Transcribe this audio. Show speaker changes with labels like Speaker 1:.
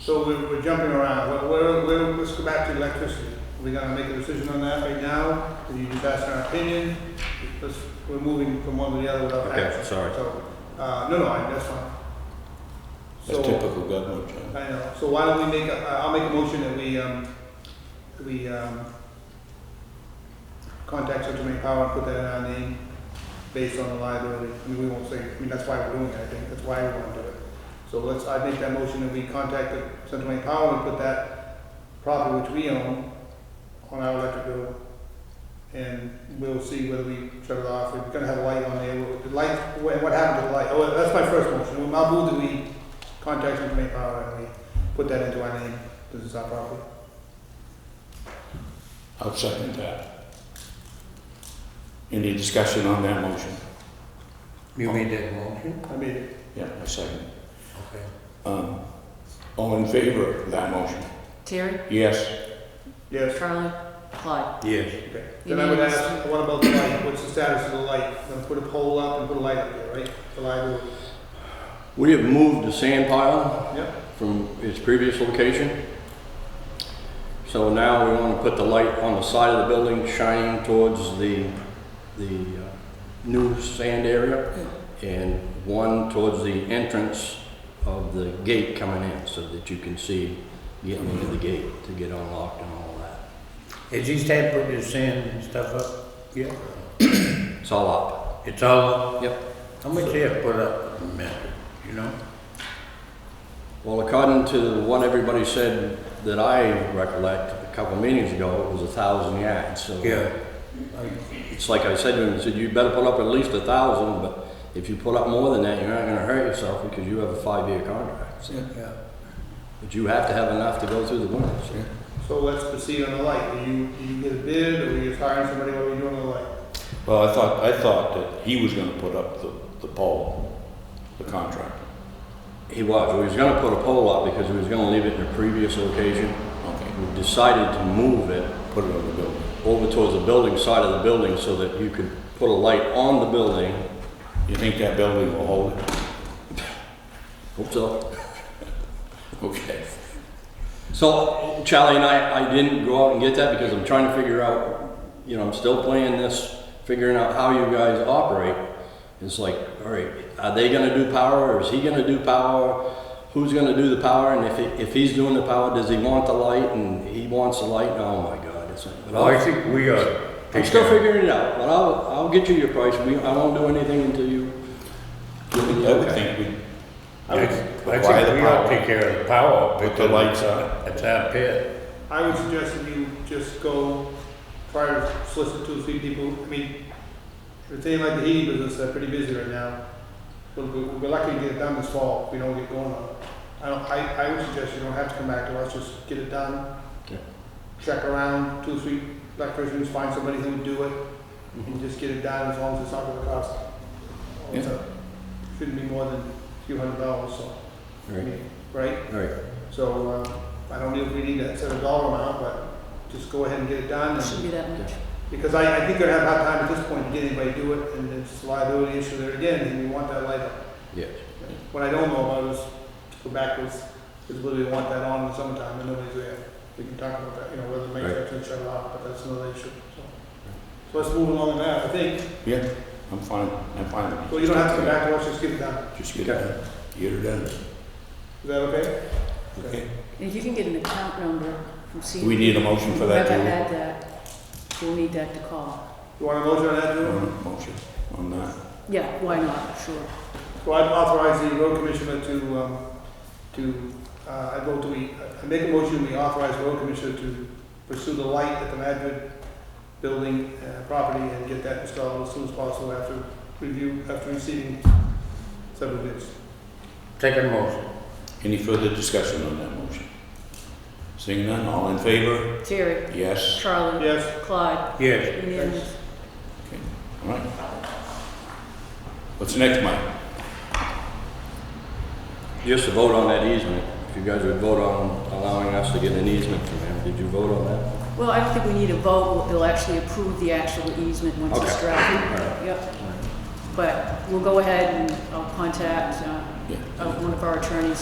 Speaker 1: So we're, we're jumping around, We're- we're, we're, let's go back to electricity. Are we gonna make a decision on that right now? Are you just asking our opinion? Let's, we're moving from one to the other without
Speaker 2: Okay,
Speaker 1: action.
Speaker 2: sorry.
Speaker 1: So, uh, no, no, I- that's fine.
Speaker 3: That's
Speaker 1: So-
Speaker 3: typical government, John.
Speaker 1: I know, so why don't we make, a- I'll make a motion that we, um, we, um, contact Central Maine Power and put that in our name based on the liability. I mean, we won't say, I mean, that's why we're doing it, I think, that's why we wanna do it. So let's, I make that motion that we contact the Central Maine Power and put that property which we own on our electric bill. And we'll see whether we shut it off, we're gonna have a light on there, the light, what what happened to the light? Oh, that's my first motion, I'll move that we contact Central Maine Power and we put that into our name, this is our property.
Speaker 3: I'll second that. Any discussion on that motion?
Speaker 4: You made that motion?
Speaker 1: I made it.
Speaker 3: Yeah, I second. it.
Speaker 4: Okay.
Speaker 3: Um, All in favor of that motion?
Speaker 5: Terry,
Speaker 3: Yes,
Speaker 1: Yes.
Speaker 5: Charlie, Clyde.
Speaker 2: Yes.
Speaker 1: Okay. Then I would
Speaker 5: Unanimous.
Speaker 1: ask, what about the light? What's the status of the light? Gonna put a pole up and put a light up there, right? The light
Speaker 6: We have moved the sand pile
Speaker 1: will, yep.
Speaker 6: from its previous location. So now we want to put the light on the side of the building shining towards the, the uh, new sand area and one towards the entrance of the gate coming in so that you can see getting into the gate to get unlocked and all that.
Speaker 4: Has he started putting his sand and stuff up? Yeah.
Speaker 6: It's all up.
Speaker 4: It's all up?
Speaker 6: Yep.
Speaker 4: How much they have put up, man, you know?
Speaker 6: Well, according to what everybody said that I recollect a couple meetings ago, it was a thousand yards, so. It's like I said to him, I said, you better put up at least a thousand, but if you put up more than that, you're not gonna hurt yourself because you have a five-year contract. so.
Speaker 4: Yeah.
Speaker 6: But you have to have enough to go through the winter, so.
Speaker 1: So let's proceed on the light. Do you, do you get a bid or are you hiring somebody? What are you doing on the light?
Speaker 3: well, I thought, I thought that he was gonna put up the, the pole, the contract.
Speaker 6: He was, he was gonna put a pole up because he was gonna leave it in a previous location.
Speaker 3: Okay,
Speaker 6: We decided to move it
Speaker 3: put it on the building.
Speaker 6: over towards the building side of the building so that you could put a light on the building.
Speaker 3: You think that building will hold it?
Speaker 6: Hope so.
Speaker 3: Okay.
Speaker 6: So Charlie and I, I didn't go out and get that because I'm trying to figure out, you know, I'm still playing this, figuring out how you guys operate. It's like, all right, are they gonna do power or is he gonna do power? Who's gonna do the power? And if, he- if he's doing the power, does he want the light and he wants the light? Oh my God, it's like, but
Speaker 4: Well, I
Speaker 6: I'll-
Speaker 4: think we are.
Speaker 6: I'm still figuring it out, but I'll, I'll get you your price. We, I won't do anything until you.
Speaker 3: I would think we,
Speaker 4: I I
Speaker 3: Why the
Speaker 4: think we ought
Speaker 3: power?
Speaker 4: to take care of the power.
Speaker 3: Put the
Speaker 4: because
Speaker 3: lights on.
Speaker 4: It's our pit.
Speaker 1: I would suggest that you just go try to solicit two or three people. I mean, if they like the heating business, they're pretty busy right now. We'll, we'll, we're lucky to get it done this fall if we don't get going on it. I don't, I, I would suggest you don't have to come back to us, just get it done.
Speaker 6: Okay.
Speaker 1: Check around, two or three electricians, find somebody who would do it
Speaker 6: Mm-hmm.
Speaker 1: and just get it done as long as it's not gonna cost.
Speaker 3: Yeah.
Speaker 1: Shouldn't be more than a few hundred dollars, so,
Speaker 6: All
Speaker 1: I
Speaker 6: right,
Speaker 1: mean, right?
Speaker 6: all right.
Speaker 1: So, uh, I don't know if we need that set a dollar amount, but just go ahead and get it done.
Speaker 5: It
Speaker 1: and-
Speaker 5: shouldn't be that much.
Speaker 1: Because I, I think they're gonna have a hard time at this point to get anybody to do it, and it's a liability issue there again, and we want that light up.
Speaker 6: Yes.
Speaker 1: What I don't know about is, to go backwards, is whether we want that on in the summertime, and nobody's there. We can talk about that, you know, whether the manufacturer shut it off, but that's another issue, so. So let's move along now, I think,
Speaker 3: yeah, I'm fine, I'm fine. with it.
Speaker 1: well, you don't have to come back to us, just get it done.
Speaker 3: Just get it done, get it done,
Speaker 1: Is that okay?
Speaker 3: okay?
Speaker 5: If you can get an account number from C.
Speaker 3: Do we need a motion for that
Speaker 5: Whoever
Speaker 3: too?
Speaker 5: had that, we'll need that to call.
Speaker 1: You want a motion on that, Drew?
Speaker 3: Um, Motion on that.
Speaker 5: Yeah, why not, sure.
Speaker 1: So I'd authorize the road commissioner to, um, to, uh, I vote to, we, I make a motion, we authorize the road commissioner to pursue the light at the Madrid building, uh, property and get that installed as soon as possible after review, after receiving several bids.
Speaker 4: Second motion.
Speaker 3: Any further discussion on that motion? Seeing none, all in favor?
Speaker 5: Terry,
Speaker 3: Yes.
Speaker 5: Charlie,
Speaker 1: Yes,
Speaker 5: Clyde,
Speaker 4: Yes.
Speaker 5: unanimous.
Speaker 3: All right. What's next, Mike?
Speaker 6: Just to vote on that easement, if you guys would vote on allowing us to get an easement from him, did you vote on that?
Speaker 5: Well, I don't think we need a vote, they'll actually approve the actual easement once it's
Speaker 6: Okay.
Speaker 5: drafted. Yep. But we'll go ahead and I'll contact, uh,
Speaker 3: Yeah.
Speaker 5: uh, one of our attorneys